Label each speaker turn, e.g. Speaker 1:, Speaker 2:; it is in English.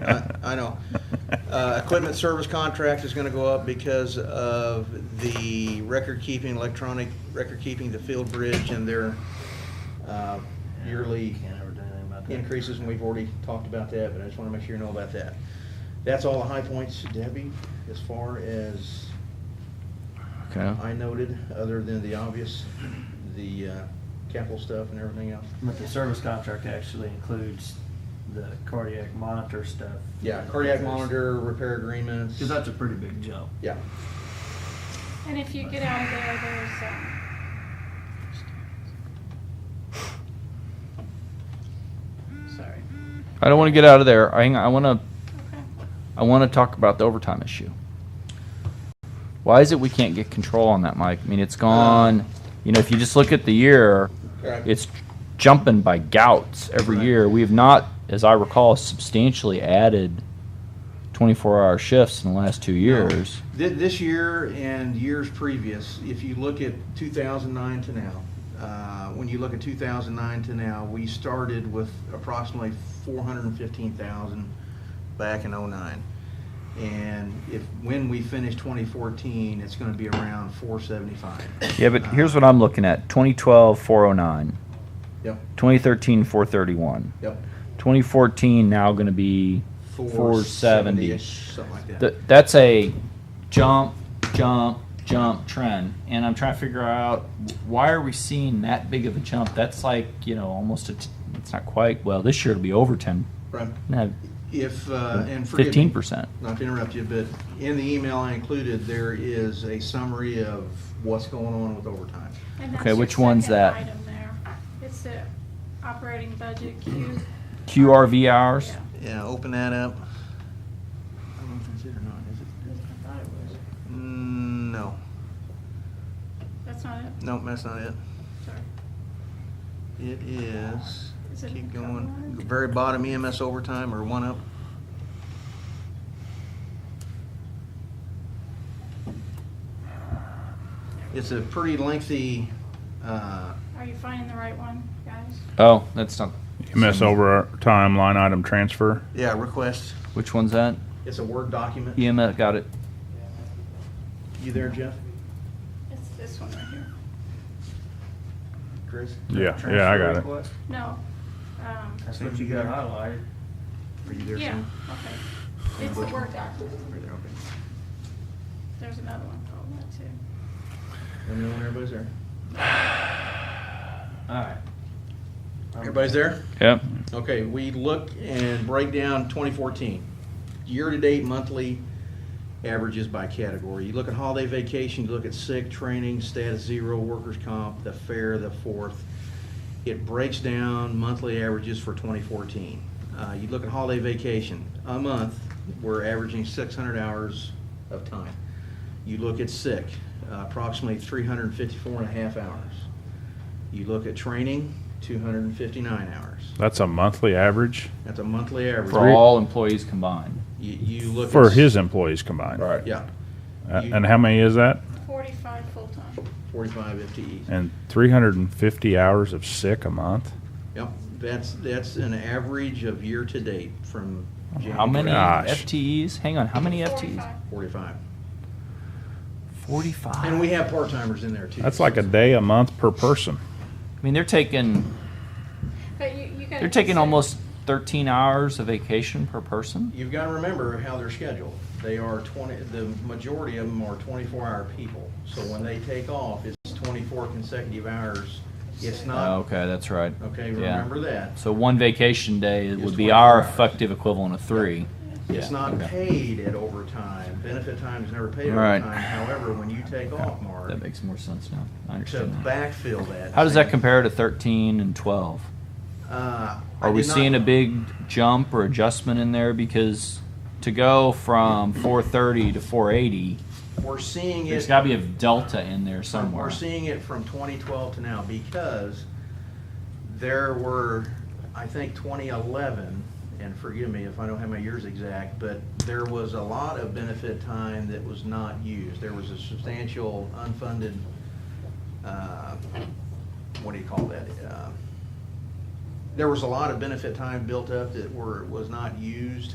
Speaker 1: I I know. Uh, Equipment service contract is gonna go up because of the record-keeping, electronic record-keeping, the field bridge and their uh, yearly
Speaker 2: Can't ever do anything about that.
Speaker 1: increases, and we've already talked about that, but I just wanna make sure you know about that. That's all the high points, Debbie, as far as
Speaker 3: Okay.
Speaker 1: I noted, other than the obvious, the uh, capital stuff and everything else.
Speaker 2: But the service contract actually includes the cardiac monitor stuff.
Speaker 1: Yeah, cardiac monitor, repair agreements.
Speaker 2: Cause that's a pretty big jump.
Speaker 1: Yeah.
Speaker 4: And if you get out of there, there's, um, sorry,
Speaker 3: I don't want to get out of there. I, I want to
Speaker 4: okay.
Speaker 3: I want to talk about the overtime issue. Why is it we can't get control on that, Mike? I mean, it's gone. You know, if you just look at the year,
Speaker 1: Correct.
Speaker 3: it's jumping by gouts every
Speaker 2: Right.
Speaker 3: year. We have not, as I recall, substantially added 24-hour shifts in the last two years.
Speaker 1: Thi- This year and years previous, if you look at 2009 to now, uh, when you look at 2009 to now, we started with approximately 415,000 back in '09. And if, when we finish 2014, it's going to be around Uh, 475.
Speaker 3: Yeah, but here's what I'm looking at: 2012, 409;
Speaker 1: Yep,
Speaker 3: 2013, 431;
Speaker 1: yep.
Speaker 3: 2014, now going to be 470.
Speaker 1: 470-ish, Something like that.
Speaker 3: Th- that's a jump, jump, jump trend, and I'm trying to figure out why are we seeing that big of a jump? That's like you know almost a. T- it's not quite well. This year it'll be over ten,
Speaker 1: Right.
Speaker 3: no,
Speaker 1: If, uh, and forgive me.
Speaker 3: fifteen percent.
Speaker 1: not to interrupt you, but in the email I included, there is a summary of what's going on with overtime.
Speaker 4: And that's
Speaker 3: Okay,
Speaker 4: your
Speaker 3: which one's
Speaker 4: second
Speaker 3: that?
Speaker 4: Item there. It's the operating budget Q.
Speaker 3: QRV hours.
Speaker 4: Yeah.
Speaker 1: Yeah, open that up. I don't know if that's it or not, is
Speaker 4: I
Speaker 1: it?
Speaker 4: thought it was.
Speaker 1: Mm, No,
Speaker 4: That's not it,
Speaker 1: no, that's not it.
Speaker 4: sorry.
Speaker 1: It is,
Speaker 4: Is it
Speaker 1: keep
Speaker 4: the cover
Speaker 1: going,
Speaker 4: line?
Speaker 1: very bottom EMS overtime or one up. It's a pretty lengthy, uh,
Speaker 4: Are you finding the right one, guys?
Speaker 3: Oh, that's not.
Speaker 5: EMS overtime line item transfer.
Speaker 1: yeah, request.
Speaker 3: Which one's that?
Speaker 1: It's a Word document.
Speaker 3: EMS got it.
Speaker 1: You there, Jeff?
Speaker 4: It's this one right here.
Speaker 1: Chris?
Speaker 5: Yeah, yeah, I got it.
Speaker 4: No. um,
Speaker 2: That's what you got highlighted.
Speaker 1: Are you there,
Speaker 4: Yeah,
Speaker 1: Sam?
Speaker 4: okay. It's the
Speaker 1: Which one?
Speaker 4: Word document.
Speaker 1: Are you there? Okay.
Speaker 4: There's another one called that too.
Speaker 1: Let me know when everybody's there.
Speaker 2: Alright.
Speaker 1: Everybody's there?
Speaker 3: Yep.
Speaker 1: Okay, we look and break down 2014. Year-to-date monthly averages by category. You look at holiday vacation, you look at sick, training, status zero, workers' comp, the fair, the fourth. It breaks down monthly averages for 2014. Uh, You look at holiday vacation, a month, we're averaging 600 hours of time. You look at sick, uh, approximately 354 and a half hours. You look at training, 259 hours.
Speaker 5: That's a monthly average
Speaker 1: That's a monthly average.
Speaker 3: For all employees combined.
Speaker 1: You, you look.
Speaker 5: for
Speaker 1: at-
Speaker 5: his employees combined.
Speaker 1: Yeah,
Speaker 5: Uh, and how many is that?
Speaker 4: Forty-five full-time.
Speaker 1: forty-five FTEs.
Speaker 5: And 350 hours of sick a month.
Speaker 1: Yep, that's, that's an average of year-to-date from January.
Speaker 3: How many
Speaker 5: Gosh.
Speaker 3: FTEs? Hang on. How many FTEs?
Speaker 4: 45.
Speaker 1: Forty-five.
Speaker 3: Forty-five.
Speaker 1: And we have part-timers in there too.
Speaker 5: That's like a day a month per person.
Speaker 3: I mean, they're taking
Speaker 4: But you, you gotta.
Speaker 3: they're taking
Speaker 4: consider-
Speaker 3: almost thirteen hours of vacation per person.
Speaker 1: You've gotta remember how they're scheduled. They are twenty, the majority of them are twenty-four hour people. So when they take off, it's twenty-four consecutive hours. It's
Speaker 3: Oh,
Speaker 1: not,
Speaker 3: okay, that's right.
Speaker 1: okay,
Speaker 3: Yeah.
Speaker 1: remember that.
Speaker 3: So one vacation day
Speaker 1: It's
Speaker 3: would be
Speaker 1: 24
Speaker 3: our
Speaker 1: hours.
Speaker 3: effective equivalent of three.
Speaker 1: It's
Speaker 3: Yeah,
Speaker 1: not
Speaker 3: okay.
Speaker 1: paid at overtime. Benefit time is never paid
Speaker 3: Right.
Speaker 1: overtime. However, when you take off, Mark,
Speaker 3: That makes more sense now. I
Speaker 1: to
Speaker 3: understand that.
Speaker 1: backfill that.
Speaker 3: How does that compare to thirteen and twelve?
Speaker 1: Uh, I
Speaker 3: Are we
Speaker 1: did not-
Speaker 3: seeing a big jump or adjustment in there? Because to go from four thirty to four eighty,
Speaker 1: We're seeing
Speaker 3: there's
Speaker 1: it,
Speaker 3: gotta be a delta in there
Speaker 1: from- we're
Speaker 3: somewhere.
Speaker 1: seeing it from 2012 to now because there were, I think 2011, and forgive me if I don't have my years exact, but there was a lot of benefit time that was not used. There was a substantial unfunded, uh, what do you call that? Uh, There was a lot of benefit time built up that were, was not used.